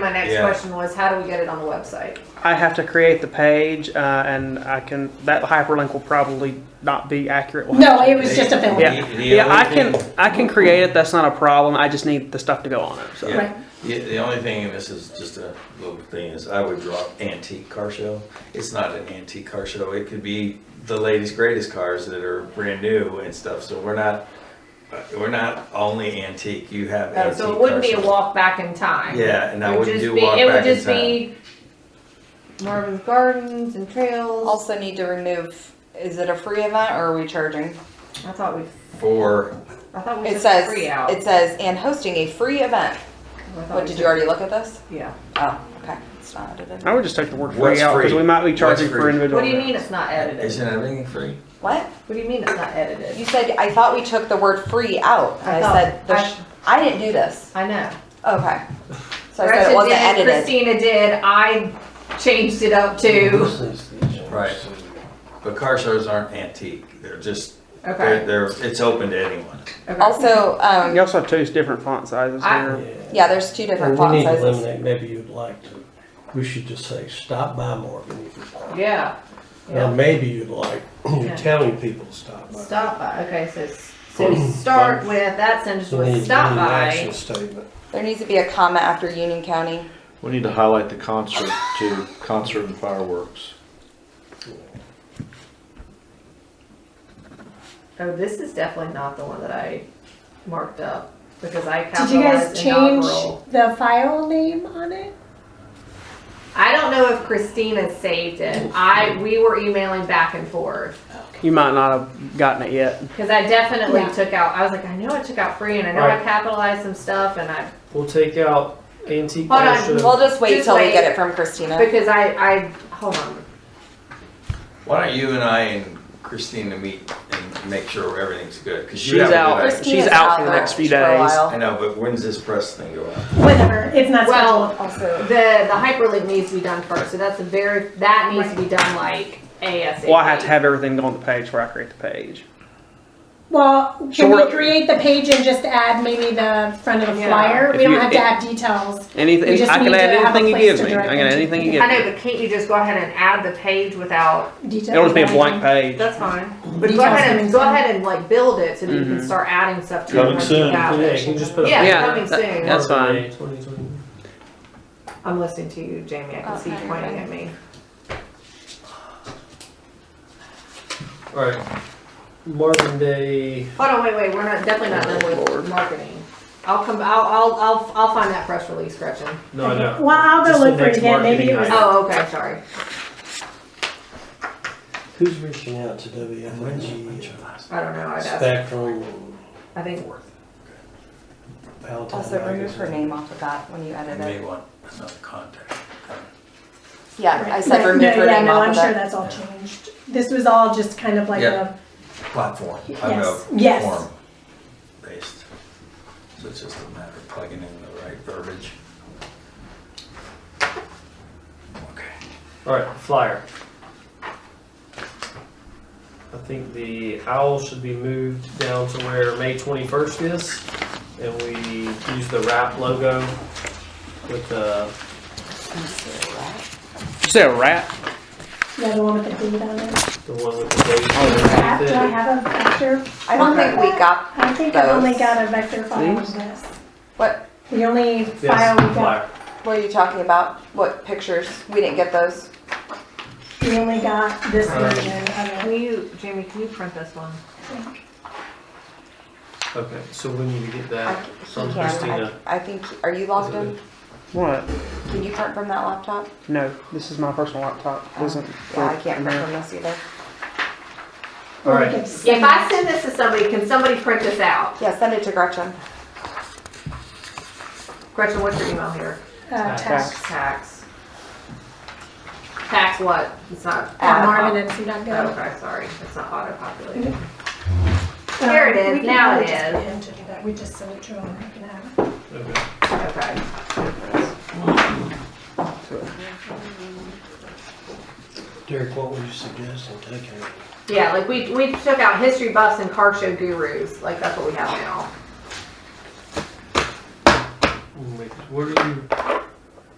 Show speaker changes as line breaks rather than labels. my next
Yeah.
question was, how do we get it on the website?
I have to create the page, uh, and I can, that hyperlink will probably not be accurate. We'll have
No,
to-
it was just a film.
Yeah,
The- the
yeah, I
only
can,
thing-
I can create it, that's not a problem, I just need the stuff to go on it, so.
Yeah.
Right.
Yeah, the only thing, and this is just a little thing, is I would drop antique car show. It's not an antique car show. It could be the latest greatest cars that are brand new and stuff. So we're not, uh, we're not only antique. You have
Uh,
antique.
So it wouldn't be a
car show.
walk back in time.
Yeah, and
It
I
would
wouldn't
just
do
be-
walk
It would
back in
just
time.
be Marvin's Gardens and Trails.
Also need to remove, is it a free event or are we charging?
I thought we,
For,
I thought we
It
said
says,
free out.
it says, and hosting a free event. What, did you already look at this?
Yeah.
Oh, okay, it's not edited.
I would just take the word
What's
free out, because
free?
we might be charging
What's
for
free?
individual.
What do you mean
events.
it's not edited?
isn't everything free?
What?
What do you mean it's not edited?
You said, I thought we took the word free out.
I
And I
thought-
said, the sh- I didn't do this.
I know.
Okay. So I said
Gretchen
it wasn't
did,
edited.
Christina did, I changed it up too.
Right. But car shows aren't antique. They're just, they're,
Okay.
they're, it's open to anyone.
okay.
Also,
You
um,
also have two different font sizes
I-
Ah.
here.
yeah, there's two different
And we
font
need to
sizes.
eliminate, maybe you'd like to, we should just say, stop by Morgan if you want.
Yeah.
Now,
Yeah.
maybe you'd like,
Yeah.
you're telling people to stop by.
Stop by. Okay, so, s- so we start with, that sentence
We need- we
was
need
stop
an
by.
Action statement.
There needs to be a comma after Union County.
We need to highlight the concert to concert and fireworks.
Oh, this is definitely not the one that I marked up because I
Did you guys
capitalized
change
inaugural.
the file name on it?
I don't know if Christina saved it. I, we were emailing back and forth.
You might not have gotten it yet.
Cause I definitely
Yeah.
took out, I was like, I know I took out free and I know I capitalized some stuff and I,
We'll take out antique.
Hold on,
fashion.
We'll just wait
Just
till we
wait.
get it from Christina.
because I, I, hold on.
Why don't you and I and Christina meet and make sure everything's good? 'Cause you
She's
have a good
out.
idea.
Christina's
She's out for the
out
next few
for a
days.
while.
I know, but when's this press thing go out?
Whatever, it's not
Well,
scheduled also.
The, the hyperlink needs to be done first, so that's a very, that needs to be done like ASAP.
Well, I have to have everything on the page where I create the page.
Well,
So
can we
we're-
create the page and just add maybe the front of the
Yeah.
flyer?
If
We don't
you-
have to
it-
add details. We
Anything,
just
I can
need
add
to have a
anything you
place
give
to
me, I
direct
can
them
add
to.
anything you give
I
me.
know, but can't you just go ahead and add the page without
Details.
It'll just be a blank page.
That's fine. But go
Details
ahead
coming
and, go
soon.
ahead and like build it so that you can
Mhm.
start adding stuff to it.
Coming
once you
soon.
have
Yeah,
it.
you can just put a.
Yeah,
Yeah,
coming
that-
soon.
that's fine.
2020.
I'm listening to you, Jamie. I can see you
Okay.
pointing at me.
Alright, Marvin Day,
Hold on, wait, wait. We're not definitely not done with marketing. I'll come. I'll, I'll. I'll. I'll find that press release, Gretchen.
no, I know.
Well, I'll go
Just
look
the
for it
next
again, maybe it
marketing
was.
item.
Oh, okay. Sorry.
Who's reaching out to WFG,
I don't know. I'd ask.
Spectrum, and
I think.
Palatine
Also, remove her
Magazine?
name off of that when you edit
May
it.
want another contact.
Yeah, Oh, I said
Right.
remove
No,
her
yeah,
name
no,
off
I'm
of
sure
it.
that's all changed. This was all just kind of like
Yeah.
a,
Platform.
Yes, yes.
Form based. So it's just a matter of plugging in the right verbiage. Okay.
alright, flyer. I think the owl should be moved down to where May twenty-first is, and we use the wrap logo with the,
Did you say a rat?
yeah, the one with the date on it.
the one with the date.
Crap,
underneath
Do I
it.
have a vector?
I don't think we got,
I think I've only
Those.
got a vector file of
These?
this.
what,
The only file
Yes,
we got,
flyer.
what are you talking about? What pictures? We didn't get those.
we only got this
Um,
version of it.
Can you, Jamie? Can you print this one?
Okay, so we need to get
I,
that
he
from
can, I,
Christina.
I think, are you logged in?
What?
Can you print from that laptop?
No, this is my personal laptop. It Wasn't.
Yeah, I can't print from this either.
Or we
Alright.
could
If
send
I send this to somebody, can somebody print this out?
Yeah, send it to Gretchen.
Gretchen, what's your email here?
Uh,
Tax.
tax.
Tax. Tax what? It's not.
Uh,
At
Oh,
marvinmc.gov.
Okay, sorry. It's not auto populated. There it is, now it is.
We just send it to them, we can have it.
Okay.
Okay.
Derek, what would you suggest in taking?
Yeah, like we, we took out history buffs and car show gurus, like that's what we have now.